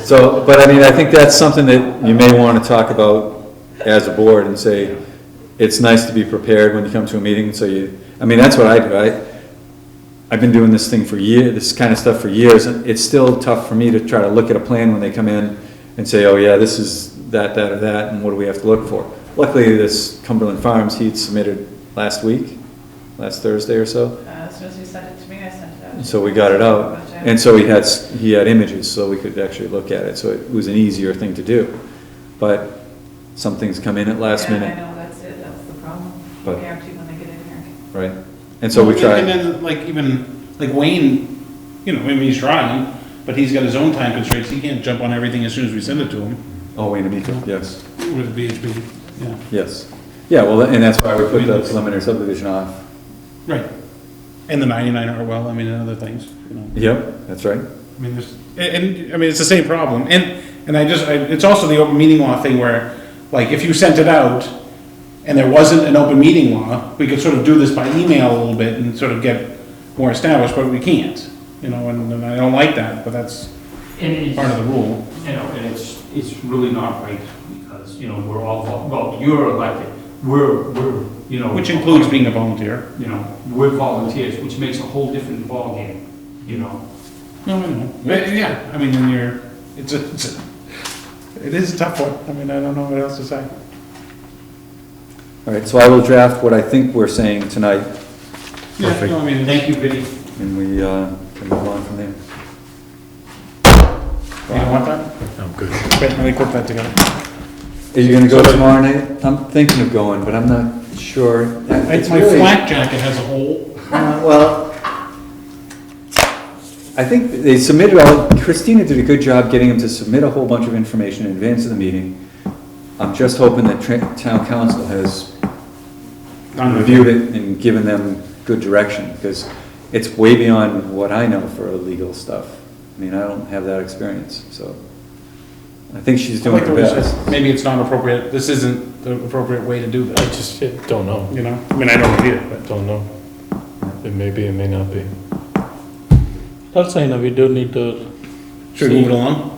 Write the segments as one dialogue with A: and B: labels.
A: So, but I mean, I think that's something that you may wanna talk about as a board and say, it's nice to be prepared when you come to a meeting, so you, I mean, that's what I do, I, I've been doing this thing for years, this kind of stuff for years, and it's still tough for me to try to look at a plan when they come in and say, oh yeah, this is that, that, or that, and what do we have to look for? Luckily, this Cumberland Farms, he'd submitted last week, last Thursday or so,
B: Uh, As soon as you sent it to me, I sent it out.
A: so we got it out, and so he had, s- he had images, so we could actually look at it, so it was an easier thing to do. But some things come in at last
B: Yeah, I
A: minute,
B: know, that's it, that's the problem.
A: But-
B: Guaranteed when they get in here.
A: right? And so we
C: And- And
A: tried,
C: then, like, even, like Wayne, you know, I mean, he's trying, but he's got his own time constraints, he can't jump on everything as soon as we send it to him
A: oh, wait a minute, yes,
C: with VHB, yeah,
A: yes. Yeah, well, and that's why we put the preliminary subdivision off.
C: right. And the ninety-nine Hartwell, I mean, and other things, you know.
A: Yep, that's right.
C: I mean, there's, and, and, I mean, it's the same problem, and, and I just, I, it's also the open meeting law thing where, like, if you sent it out, and there wasn't an open meeting law, we could sort of do this by email a little bit and sort of get more established, but we can't, you know, and, and I don't like that, but that's
D: And
C: part of
D: it's,
C: the rule.
D: you know, and it's, it's really not right, because, you know, we're all, vol- well, you're elected, we're, we're, you know.
C: Which includes being a volunteer.
D: You know, we're volunteers, which makes a whole different ballgame, you know.
C: No, I know. But, yeah, I mean, when you're, it's a, it's a, it is a tough one. I mean, I don't know what else to say.
A: All right, so I will draft what I think we're saying tonight,
C: Yeah, no, I mean, it's-
D: Thank you, Vinnie.
A: and we, uh, can move on from there.
C: you don't want that? I'm good. Wait, let me put that together.
A: Are you gonna go tomorrow night? I'm thinking of going, but I'm not sure.
C: It's my
A: really-
C: flak jacket has a hole.
A: Uh, Well, I think they submitted all, Christina did a good job getting them to submit a whole bunch of information in advance of the meeting. I'm just hoping that tra- town council has reviewed it and given them good direction, because it's way beyond what I know for legal stuff. I mean, I don't have that experience, so I think she's doing
C: Like the
A: her
C: way it
A: best.
C: says, Maybe it's not appropriate, this isn't the appropriate way to do
E: I
C: this,
E: just yeah, don't know.
C: you know? I mean, I don't need it, but.
E: Don't know. It may be, it may not be. That's why, you know, we do need to,
C: Should we move it along?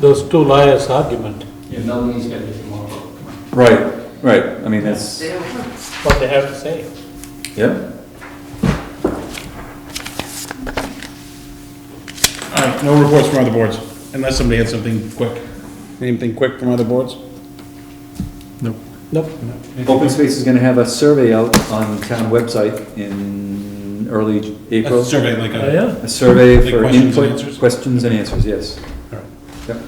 E: those two lawyers' argument.
D: Yeah, Melanie's got it tomorrow.
A: Right, right, I mean, that's,
E: What they have to say.
A: yeah,
C: All right, no reports from other boards, unless somebody had something quick. Anything quick from other boards?
E: Nope.
A: Open Space is gonna have a survey out on town website in early April.
C: A survey like
E: Oh,
C: a.
E: yeah?
A: A survey
C: Like
A: for
C: questions and
A: input,
C: answers?
A: questions and answers, yes.
C: All right.
A: Yep.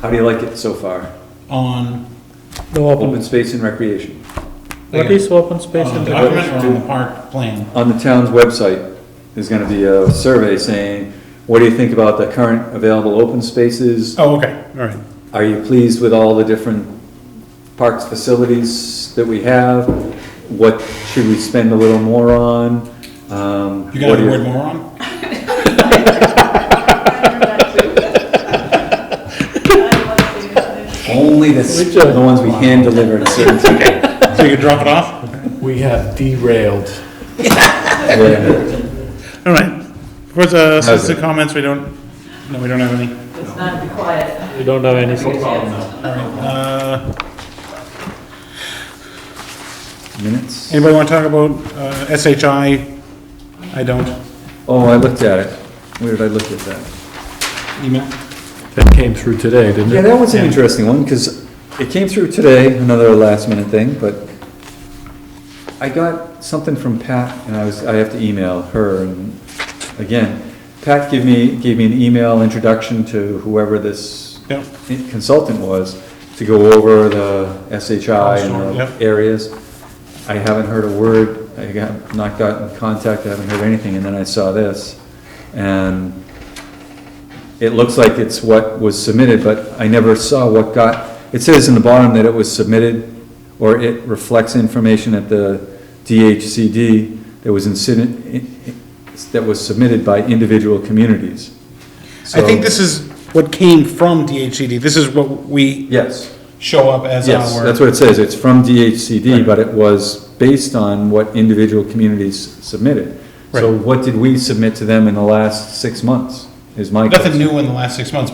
A: How do you like it so far?
C: On
E: The open,
A: Open space and recreation,
E: what is open space
C: on
E: in
C: Oh, the
E: the,
C: document or Uh, on the park plan?
A: on the town's website, there's gonna be a survey saying, what do you think about the current available open spaces?
C: Oh, okay, all right.
A: Are you pleased with all the different parks facilities that we have? What should we spend a little more on? Um,
C: You got
A: what do
C: the
A: you-
C: word moron?
A: Only the, s-
E: Which
A: the
E: are-
A: ones we hand delivered, certain,
C: So you can drop it off?
E: we have derailed.
A: yeah,
C: All right. Of course, uh, since the
A: Okay.
C: comments, we don't, no, we don't have any.
B: It's not quiet.
E: We don't have any,
D: No problem, no.
C: All right. Uh,
A: minutes.
C: anybody want to talk about, uh, SHI? I don't.
A: Oh, I looked at it. Where did I look at that?
C: Email?
E: that came through today, didn't
A: Yeah,
E: it?
A: that was an interesting one, because it came through today, another last minute thing, but I got something from Pat, and I was, I have to email her, and again, Pat gave me, gave me an email introduction to whoever this
C: Yeah.
A: consultant was, to go over the SHI and
C: Yep.
A: the areas. I haven't heard a word, I got, not got in contact, I haven't heard anything, and then I saw this, and it looks like it's what was submitted, but I never saw what got, it says in the bottom that it was submitted, or it reflects information at the DHCD that was incident, that was submitted by individual communities.
C: I think this is what came from DHCD. This is what we
A: Yes,
C: show up as our.
A: yes, that's what it says, it's from DHCD, but it was based on what individual communities submitted. So what did we submit to them in the last six months, is my question.
C: Nothing new in the last six months,